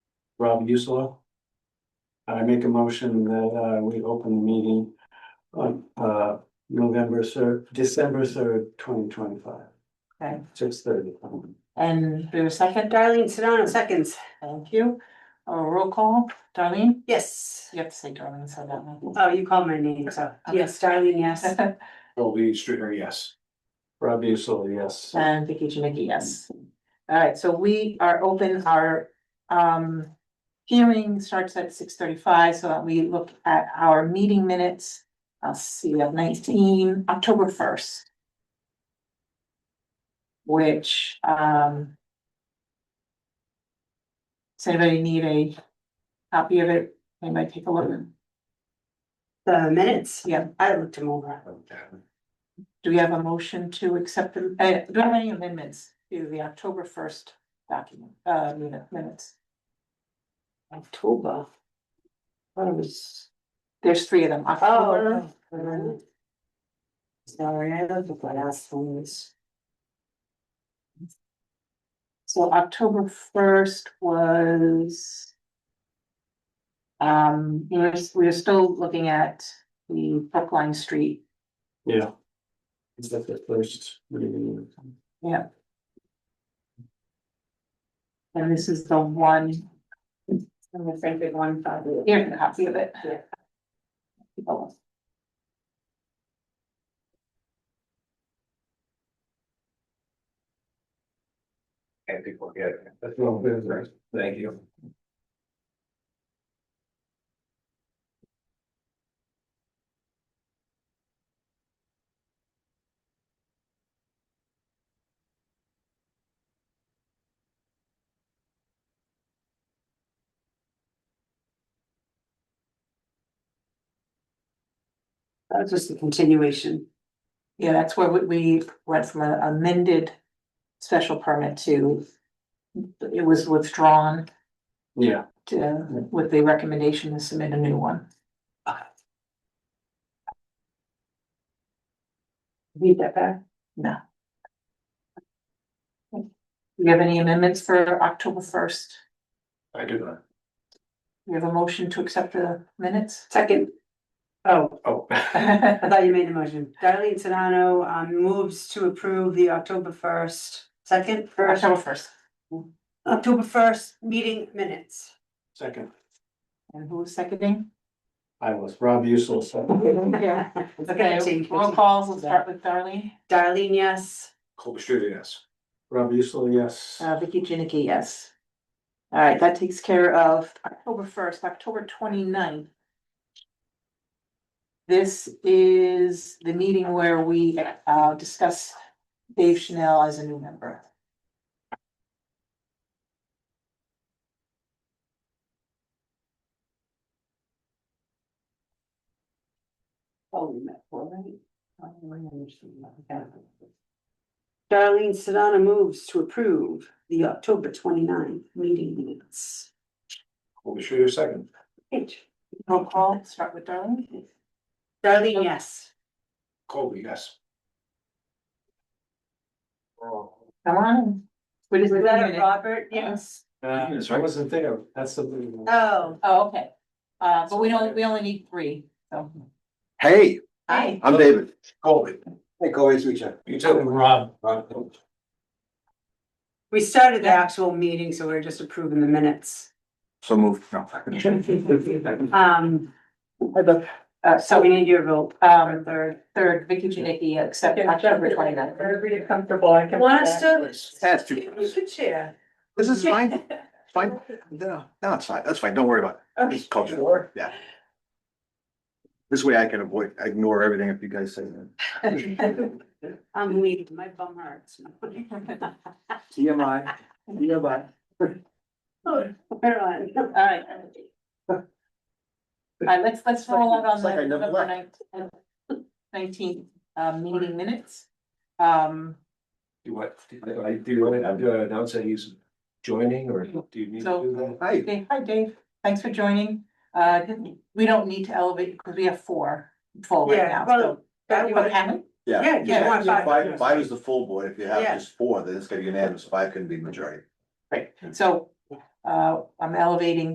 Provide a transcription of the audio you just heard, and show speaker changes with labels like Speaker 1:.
Speaker 1: Rob Usula. I make a motion that uh we open the meeting on uh November third, December third, twenty twenty five.
Speaker 2: Okay.
Speaker 1: Six thirty.
Speaker 3: Oh,
Speaker 2: And do a second,
Speaker 4: Darlene Sedano, seconds.
Speaker 2: thank you. Uh, roll call, Darlene,
Speaker 4: Yes.
Speaker 2: you have to say Darlene, so that one.
Speaker 4: Oh, you called my name, so yes, Darlene, yes.
Speaker 1: Colby Stringer, yes. Rob Usula, yes.
Speaker 2: And Vicky Janicki, yes. All right, so we are open, our um hearing starts at six thirty-five, so that we look at our meeting minutes. I'll see, we have nineteen, October first. Which um. Does anybody need a copy of it? Anybody take a look?
Speaker 4: The minutes.
Speaker 2: Yeah.
Speaker 4: I looked him over.
Speaker 2: Do we have a motion to accept, the- uh, do we have any amendments to the October first document, uh, minute- minutes?
Speaker 4: October. Thought it was.
Speaker 2: There's three of them, October,
Speaker 4: Oh. okay. Sorry, I looked at my last ones.
Speaker 2: so October first was. Um, we we're, we we're still looking at the Brookline Street,
Speaker 1: Yeah. Is that the first meeting?
Speaker 2: and this is the one,
Speaker 4: I'm afraid we won five.
Speaker 2: here's a copy of it.
Speaker 4: Yeah.
Speaker 2: Oh.
Speaker 3: And people get.
Speaker 1: That's wrong, that's right.
Speaker 3: Thank you.
Speaker 4: That was just a continuation.
Speaker 2: Yeah, that's where we, we went from an amended special permit to, it was withdrawn
Speaker 1: Yeah,
Speaker 2: to, with the recommendation to submit a new one.
Speaker 4: Read that back.
Speaker 2: No. Do you have any amendments for October first?
Speaker 3: I do not.
Speaker 2: We have a motion to accept the minutes?
Speaker 4: Second. Oh,
Speaker 3: Oh,
Speaker 4: I thought you made the motion. Darlene Sedano, um, moves to approve the October first, second, first,
Speaker 2: October first.
Speaker 4: October first meeting minutes.
Speaker 1: second.
Speaker 2: And who was seconding?
Speaker 1: I was Rob Usula, second.
Speaker 2: Yeah. Okay, roll calls, we'll start with Darlene.
Speaker 4: Darlene, yes.
Speaker 3: Colby Stringer, yes.
Speaker 1: Rob Usula, yes.
Speaker 2: Uh, Vicky Janicki, yes. All right, that takes care of October first, October 29th. This is the meeting where we, uh, discuss Dave Chanel as a new member.
Speaker 4: Oh, we met four, right? Oh, I understand that. Okay. Darlene Sedana moves to approve the October 29th meeting minutes.
Speaker 3: Colby Stringer, second.
Speaker 2: Roll call, start with Darlene.
Speaker 4: Darlene, yes.
Speaker 3: Colby, yes. Oh,
Speaker 2: Come on. What is it?
Speaker 4: Robert, yes.
Speaker 1: Uh, I wasn't there, that's something.
Speaker 4: Oh,
Speaker 2: Oh, okay. Uh, but we don't, we only need three, so.
Speaker 5: Hey,
Speaker 2: Hi.
Speaker 5: I'm David.
Speaker 3: Colby,
Speaker 5: Hey, Corey, it's Richard.
Speaker 3: you too.
Speaker 1: Rob.
Speaker 4: we started the actual meeting, so we're just approving the minutes.
Speaker 5: So moved. No.
Speaker 4: Um,
Speaker 2: Uh,
Speaker 4: so
Speaker 2: so,
Speaker 4: we need your vote.
Speaker 2: um, third, third, Vicky Janicki, accept October 29th.
Speaker 6: comfortable, I
Speaker 4: Want us to?
Speaker 5: That's too-
Speaker 4: You could share.
Speaker 5: This is fine, It's fine. No, no, it's fine. That's fine. Don't worry about it.
Speaker 4: Oh,
Speaker 5: This is culture.
Speaker 6: Sure.
Speaker 5: This way I can avoid, ignore everything if you guys say that.
Speaker 4: I'm leaving, my bum hurts.
Speaker 5: TMI, TMI.
Speaker 4: We're on.
Speaker 2: All right. All right, let's, let's roll out on
Speaker 5: It's like I
Speaker 2: the
Speaker 5: never
Speaker 2: November nineteenth, uh, meeting minutes. Um,
Speaker 3: Do what, do you want to announce that he's joining or do you need to do that?
Speaker 5: Hi,
Speaker 2: Dave, hi Dave, thanks for joining. Uh, we don't need to elevate because we have four full right
Speaker 4: Yeah,
Speaker 2: now,
Speaker 4: well,
Speaker 2: so.
Speaker 4: that
Speaker 2: You
Speaker 4: would-
Speaker 2: want Hammond?
Speaker 4: Yeah, you just want five.
Speaker 5: Five, five is the full board. If you have
Speaker 4: Yeah.
Speaker 5: just four, then it's gonna be unanimous. Five can be majority.
Speaker 2: So, uh, I'm elevating